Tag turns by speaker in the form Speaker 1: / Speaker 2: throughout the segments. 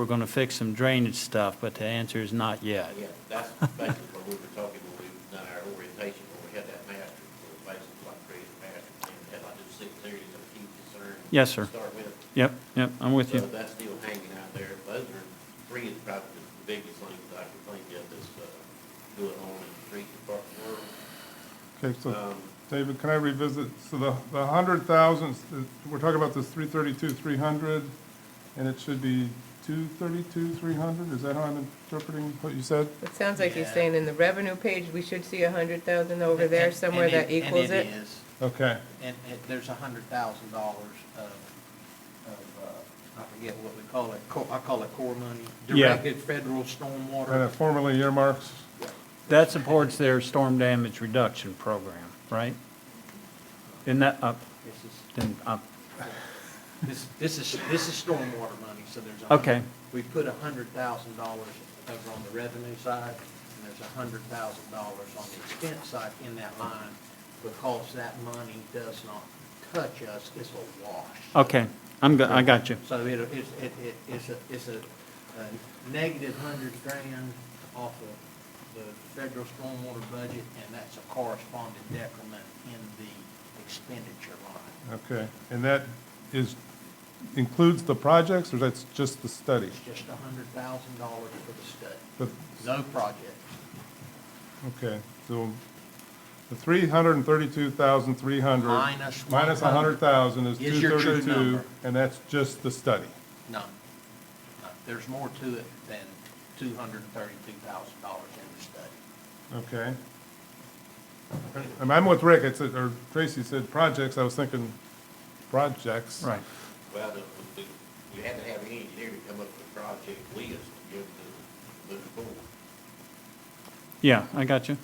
Speaker 1: we're going to fix some drainage stuff, but the answer is not yet.
Speaker 2: Yeah, that's basically what we were talking when we done our orientation, when we had that master, we were basically like creating a master plan, we had like the six areas of key concern.
Speaker 1: Yes, sir.
Speaker 2: to Start with.
Speaker 1: Yep, yep, I'm with
Speaker 2: So
Speaker 1: you.
Speaker 2: that's still hanging out there. Those are three is probably the biggest things I can think of that's, uh, going on in the street department world.
Speaker 3: Okay, so,
Speaker 2: Um,
Speaker 3: David, can I revisit, so the, the hundred thousand, we're talking about this three thirty-two, three hundred, and it should be two thirty-two, three hundred, is that how I'm interpreting what you said?
Speaker 4: It sounds like he's
Speaker 2: Yeah.
Speaker 4: saying in the revenue page, we should see a hundred thousand over there
Speaker 5: And-
Speaker 4: somewhere
Speaker 5: and
Speaker 4: that equals it.
Speaker 5: And it is,
Speaker 3: Okay,
Speaker 5: and it, there's a hundred thousand dollars of, of, uh, I forget what we call it, co- I call it core money.
Speaker 1: Yeah.
Speaker 5: Directed federal
Speaker 3: and it
Speaker 5: stormwater.
Speaker 3: formerly earmarks,
Speaker 1: That supports their storm damage reduction program, right? Isn't that up,
Speaker 5: This is,
Speaker 1: then up?
Speaker 5: this, this is, this is stormwater money, so there's. a hundred-
Speaker 1: Okay,
Speaker 5: We put a hundred thousand dollars over on the revenue side, and there's a hundred thousand dollars on the expense side in that line, because that money does not touch us, it's a wash.
Speaker 1: okay, I'm, go- I got you.
Speaker 5: So it, it's, it, it- it's a, it's a, a negative hundred grand off of the federal stormwater budget, and that's a corresponding decrement in the expenditure line.
Speaker 3: okay, and that is, includes the projects, or that's just the study?
Speaker 5: It's just a hundred thousand dollars for the study,
Speaker 3: But,
Speaker 5: no project.
Speaker 3: okay, so the three hundred and thirty-two thousand, three hundred.
Speaker 5: Minus
Speaker 3: Minus a hundred
Speaker 5: 100.
Speaker 3: thousand is
Speaker 5: Is
Speaker 3: two
Speaker 5: your true
Speaker 3: thirty-two,
Speaker 5: number.
Speaker 3: and that's just the study?
Speaker 5: No. No, There's more to it than two hundred and thirty-two thousand dollars in the study.
Speaker 3: Okay. I'm, I'm with Rick, it's, or Tracy said projects, I was thinking projects.
Speaker 1: Right,
Speaker 2: Well, the, the, you had to have an engineer to come up with a project list to give to the board.
Speaker 1: yeah, I got you.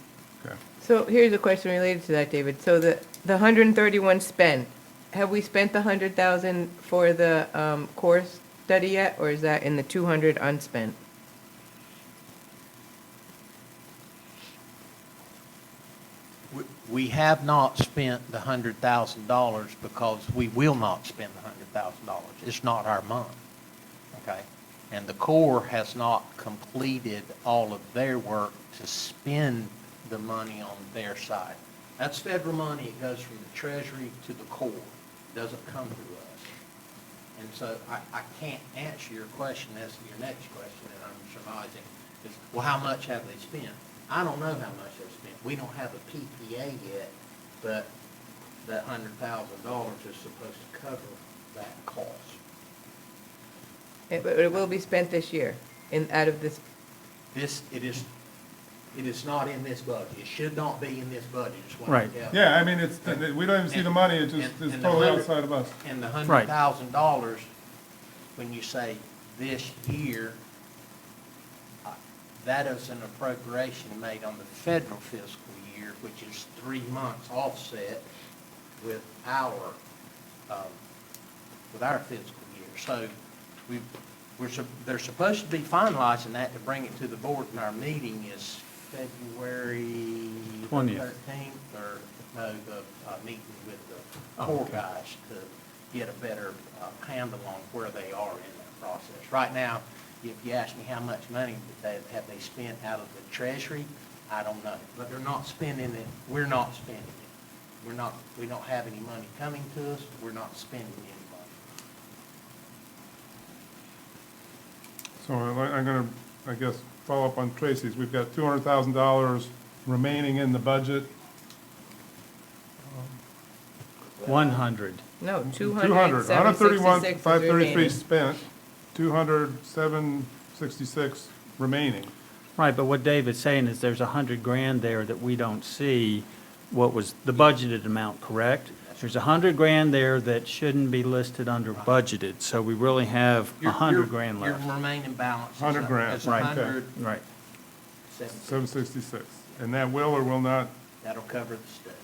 Speaker 3: Okay.
Speaker 4: So here's a question related to that, David. So the, the hundred and thirty-one spent, have we spent the hundred thousand for the, um, course study yet? Or is that in the two hundred unspent?
Speaker 5: We- We have not spent the hundred thousand dollars because we will not spend the hundred thousand dollars. It's not our month, okay? And the Corps has not completed all of their work to spend the money on their side. That's federal money. It goes from the Treasury to the Corps. Doesn't come to us. And so I, I can't answer your question as to your next question that I'm surmising is, well, how much have they spent? I don't know how much they've spent. We don't have a PPA yet, but that hundred thousand dollars is supposed to cover that cost.
Speaker 4: It, but it will be spent this year in, out of this,
Speaker 5: This, it is, it is not in this budget. It should not be in this budget, is what I'm
Speaker 1: Right.
Speaker 5: telling you.
Speaker 3: Yeah, I mean, it's, we don't even see the money, it just,
Speaker 5: And-
Speaker 3: it's
Speaker 5: and the
Speaker 3: totally
Speaker 5: hundred-
Speaker 3: outside of us.
Speaker 5: And the
Speaker 1: Right.
Speaker 5: hundred thousand dollars, when you say this year, uh, that is an appropriation made on the federal fiscal year, which is three months offset with our, um, with our fiscal year. So we, we're, sup- they're supposed to be finalizing that to bring it to the board, and our meeting is February
Speaker 1: 20th.
Speaker 5: thirteenth or, no, the, uh, meeting with the Corps guys to get a better uh, handle on where they are in that process. Right now, if you ask me how much money that they, have they spent out of the treasury, I don't know, but they're not spending it, we're not spending it. We're not, we don't have any money coming to us, we're not spending any money.
Speaker 3: So I- I'm gonna, I guess, follow up on Tracy's, we've got two hundred thousand dollars remaining in the budget.
Speaker 1: 100.
Speaker 4: no, two
Speaker 3: Two
Speaker 4: hundred,
Speaker 3: hundred,
Speaker 4: seven
Speaker 3: hundred thirty-one,
Speaker 4: sixty-six
Speaker 3: five
Speaker 4: is
Speaker 3: thirty-three
Speaker 4: remaining.
Speaker 3: spent, two hundred, seven sixty-six remaining.
Speaker 1: Right, but what David's saying is there's a 100 grand there that we don't see what was the budgeted amount, correct? There's a 100 grand there that shouldn't be listed under budgeted, so we really have a
Speaker 5: Your-
Speaker 1: 100
Speaker 5: your-
Speaker 1: grand
Speaker 5: Your
Speaker 1: left.
Speaker 5: remaining balance. is
Speaker 3: 100
Speaker 5: a-
Speaker 3: grand,
Speaker 5: is a
Speaker 1: right.
Speaker 5: hundred
Speaker 1: Right,
Speaker 5: seventy.
Speaker 3: Seven sixty-six, and that will or will not,
Speaker 5: That'll cover the study.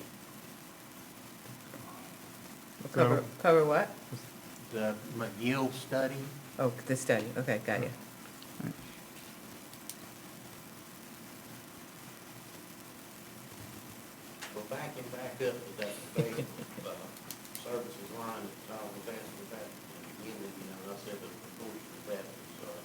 Speaker 4: Cover,
Speaker 3: so,
Speaker 4: cover what?
Speaker 5: The McGill study,
Speaker 4: Oh, the study, okay, got you.
Speaker 2: Well, backing back up to that debate, uh, services line, that Tom was asking about, at the beginning, you know, and I said that the